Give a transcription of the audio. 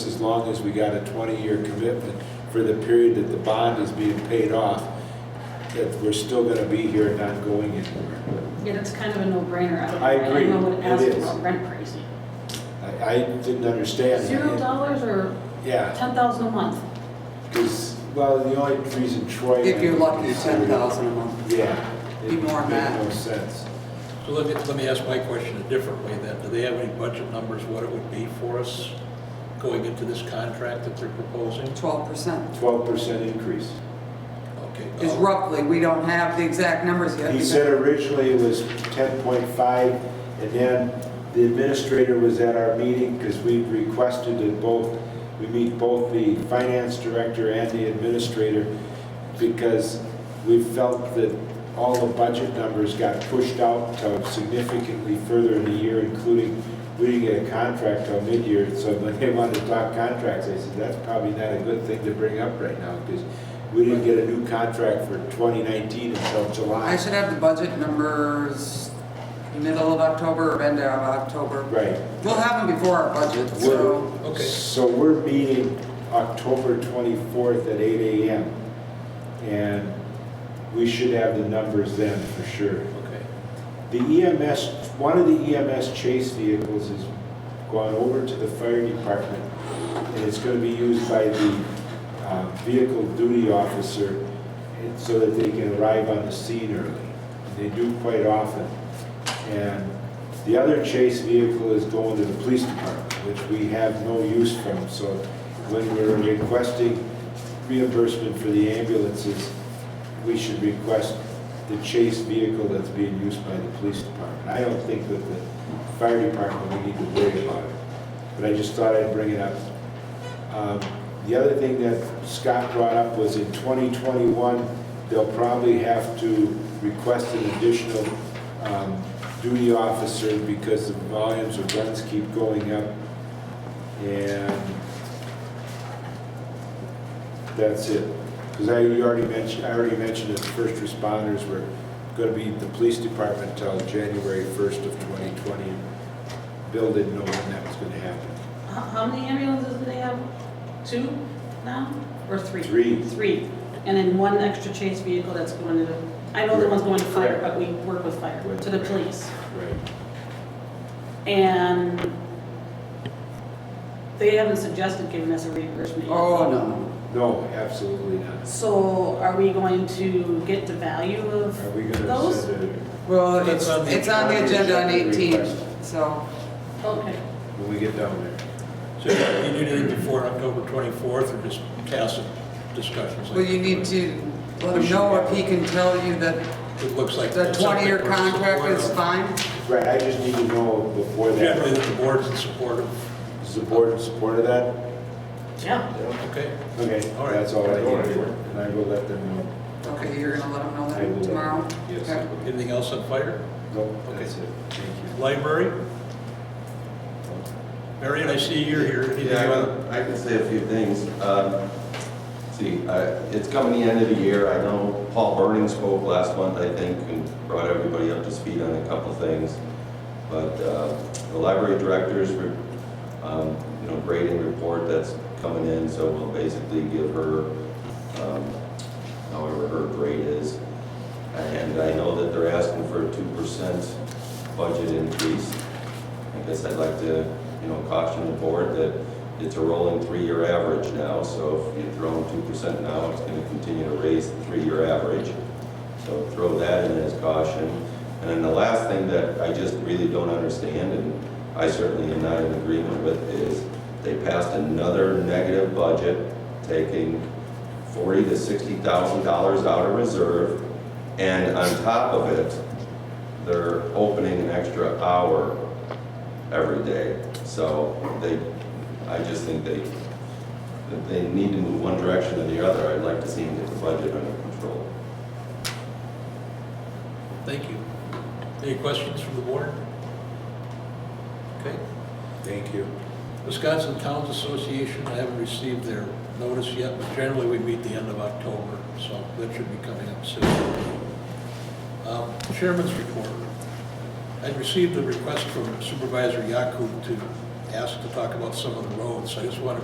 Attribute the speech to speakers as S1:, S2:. S1: long as we got a 20-year commitment for the period that the bond is being paid off, that we're still going to be here and not going anywhere.
S2: Yeah, that's kind of a no-brainer. don't-
S1: I agree.
S2: I don't know what
S1: It
S2: to ask
S1: is.
S2: about rent pricing.
S1: I, I didn't understand. that.
S2: Zero dollars or
S1: Yeah,
S2: ten thousand a month?
S1: because, well, the only reason Troy.
S3: If you're lucky,
S1: is-
S3: ten thousand a month.
S1: Yeah.
S3: Be more than that.
S1: It makes no sense.
S4: So let me, let me ask my question a different way then. Do they have any budget numbers, what it would be for us going into this contract that they're proposing?
S3: Twelve percent
S1: 12% increase.
S4: Okay.
S3: is
S4: uh,
S3: roughly, we don't have the exact numbers yet.
S1: He said originally it was 10.5, and then the administrator was at our meeting, because we requested that both, we meet both the finance director and the administrator, because we felt that all the budget numbers got pushed out to significantly further in the year, including, we didn't get a contract till mid-year, so when they wanted to talk contracts, I said, that's probably not a good thing to bring up right now, because we didn't get a new contract for 2019 until July.
S3: I should have the budget numbers middle of October or end of October.
S1: Right.
S3: We'll have them before our budget, so
S1: We're,
S4: Okay.
S1: so we're meeting October 24th at 8 AM. And we should have the numbers then for sure.
S4: Okay.
S1: The EMS, one of the EMS chase vehicles has gone over to the fire department, and it's gonna be used by the uh, vehicle duty officer and- so that they can arrive on the scene early. They do quite often. And the other chase vehicle is going to the police department, which we have no use from. So when we're requesting reimbursement for the ambulances, we should request the chase vehicle that's being used by the police department. I don't think that the fire department, we need to worry about it, but I just thought I'd bring it up. Um, The other thing that Scott brought up was in 2021, they'll probably have to request an additional um, duty officer because the volumes of guns keep going up. And that's it. Because I, you already mentioned, I already mentioned that the first responders were going to be the police department until January 1st of 2020. Bill didn't know when that was going to happen.
S2: How, how many ambulances do they have? Two now or three?
S1: Three.
S2: Three. And then one extra chase vehicle that's going to, the- I know the one's going to fire, but we work with fire, to the police.
S1: Right.
S2: And they haven't suggested giving us a reimbursement. yet.
S3: Oh, no.
S1: No, absolutely not.
S2: So are we going to get the value of
S1: Are we going to
S2: those?
S1: send it?
S3: Well,
S4: That's
S3: it's,
S4: on the
S3: it's on the agenda on eighteen, so
S2: Okay.
S1: when we get down there?
S4: So you you do it before October 24th or just tacit discussions? like
S3: well, you need to let him know if he can tell you that
S4: It looks like.
S3: the
S4: that's something
S3: twenty-year
S4: we're in
S3: contract
S4: support
S3: is
S4: of.
S3: fine.
S1: Right, I just need to know before
S4: Generally,
S1: that.
S4: the board's in support of,
S1: Is the board in support of that?
S2: Yeah.
S4: okay?
S1: Okay,
S4: All right.
S1: that's all I need. And I will let them know.
S3: Okay, you're gonna let him know
S1: I will let
S3: that
S1: them-
S3: tomorrow?
S1: yes.
S3: Okay.
S4: Anything else on fire?
S1: No,
S4: Okay.
S1: that's it. Thank
S4: Library?
S1: you.
S4: Marion, I see you're here. Anything
S5: Yeah, I
S4: on-
S5: can- I can say a few things. Um, See, I- it's coming the end of the year. I know Paul Burning spoke last month, I think, and brought everybody up to speed on a couple things. But uh, the library director's, re- um, you know, grading report that's coming in, so we'll basically give her um, however her grade is. And I know that they're asking for a two percent budget increase. I guess I'd like to, you know, caution the board that it's a rolling three-year average now, so if you throw in two percent now, it's gonna continue to raise the three-year average. So throw that in as caution. And then the last thing that I just really don't understand, and I certainly am not in agreement with, is they passed another negative budget, taking forty to sixty thousand dollars out of reserve, and on top of it, they're opening an extra hour every day. So they, I just think they, that they need to move one direction or the other. I'd like to see them get the budget under control.
S4: Thank you. Any questions from the board? Okay.
S1: Thank you.
S4: Wisconsin Towns Association, I haven't received their notice yet, but generally we meet the end of October, so that should be coming up soon. Um, Chairman's report. I received a request from Supervisor Yaku to ask to talk about some of the roads. I just want to